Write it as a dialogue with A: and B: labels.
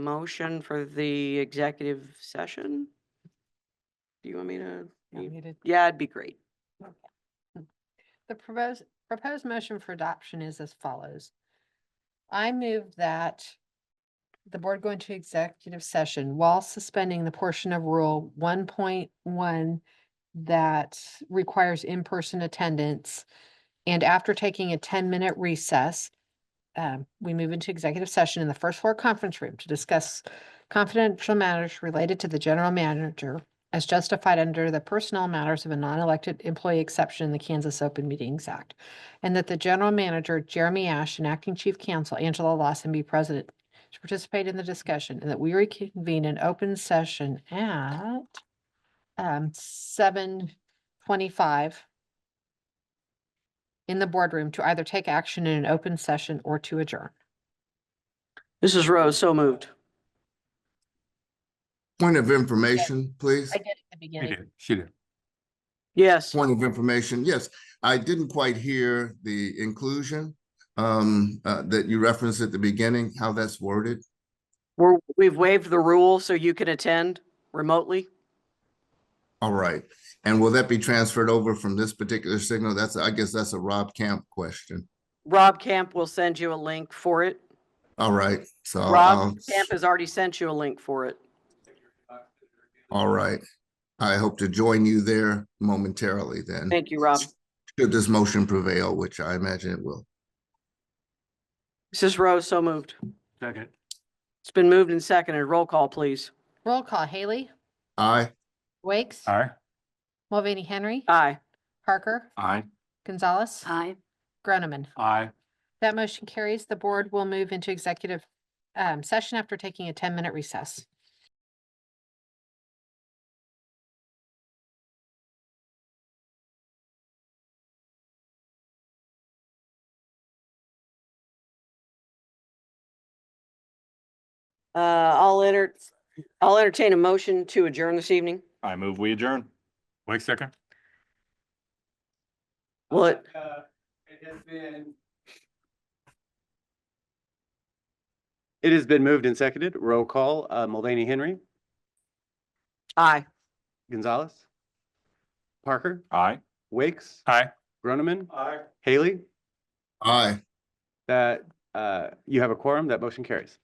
A: motion for the executive session? Do you want me to?
B: Yeah,
A: you-
B: we did.
A: Yeah, it'd be great.
B: The proposed, proposed motion for adoption is as follows. I move that the board go into executive session while suspending the portion of rule one point one that requires in-person attendance. And after taking a ten-minute recess, um, we move into executive session in the first floor conference room to discuss confidential matters related to the general manager as justified under the personnel matters of a non-elected employee exception in the Kansas Open Meetings Act. And that the general manager, Jeremy Ash, and acting chief counsel, Angela Lawson, be president to participate in the discussion, and that we reconvene an open session at um, seven twenty-five in the boardroom to either take action in an open session or to adjourn.
A: Mrs. Rose, so moved.
C: Point of information, please.
B: I did at the
D: She
B: beginning.
D: did, she did.
A: Yes,
C: Point of information, yes. I didn't quite hear the inclusion um, uh, that you referenced at the beginning, how that's worded.
A: we're, we've waived the rule so you can attend remotely.
C: All right. And will that be transferred over from this particular signal? That's, I guess that's a Rob Camp question.
A: Rob Camp will send you a link for it.
C: All right, so,
A: Rob
C: I'll-
A: Camp has already sent you a link for it.
C: all right. I hope to join you there momentarily then.
A: Thank you, Rob.
C: Should this motion prevail, which I imagine it will.
A: Mrs. Rose, so moved.
D: Second.
A: It's been moved and seconded. Roll call, please.
B: Roll call, Haley,
C: Aye,
B: Wakes,
D: Aye.
B: Mulvaney Henry,
A: Aye.
B: Parker,
D: Aye.
B: Gonzalez,
E: Aye.
B: Groneman.
D: Aye.
B: That motion carries. The board will move into executive um, session after taking a 10-minute recess.
A: Uh, I'll enter, I'll entertain a motion to adjourn this evening.
F: I move we adjourn.
D: Wait a second.
A: Will it,
G: Uh, It has been, it has been moved and seconded. Roll call, uh, Mulvaney Henry,
A: aye.
G: Gonzalez, Parker,
D: Aye.
G: Wakes,
D: Aye.
G: Groneman, Haley.
C: aye.
G: That, uh, you have a quorum, that motion carries.